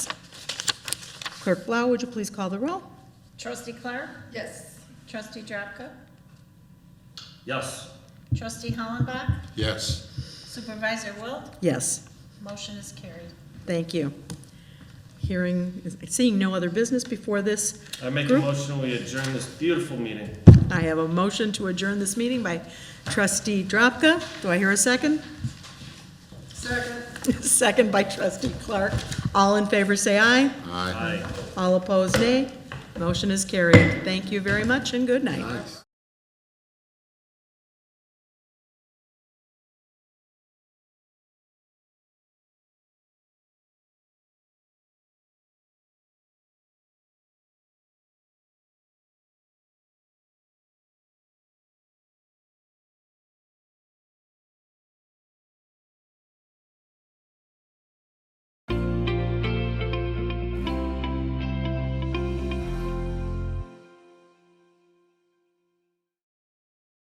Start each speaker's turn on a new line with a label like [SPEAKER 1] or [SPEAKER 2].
[SPEAKER 1] Clerk Blau, would you please call the roll?
[SPEAKER 2] Trustee Clark?
[SPEAKER 3] Yes.
[SPEAKER 2] Trustee Drapka?
[SPEAKER 4] Yes.
[SPEAKER 2] Trustee Hollenbach?
[SPEAKER 5] yes,
[SPEAKER 2] Supervisor Wilt?
[SPEAKER 1] Yes,
[SPEAKER 2] Motion is carried.
[SPEAKER 1] thank you. Hearing, seeing no other business before this
[SPEAKER 4] I make a
[SPEAKER 1] Group-
[SPEAKER 4] motion, we adjourn this beautiful meeting.
[SPEAKER 1] I have a motion to adjourn this meeting by trustee Drapka. Do I hear a second?
[SPEAKER 3] Second.
[SPEAKER 1] Second by trustee Clark. All in favor, say aye.
[SPEAKER 5] aye.
[SPEAKER 4] Aye.
[SPEAKER 1] All opposed, nay. Motion is carried. Thank you very much and good night.
[SPEAKER 5] Nice.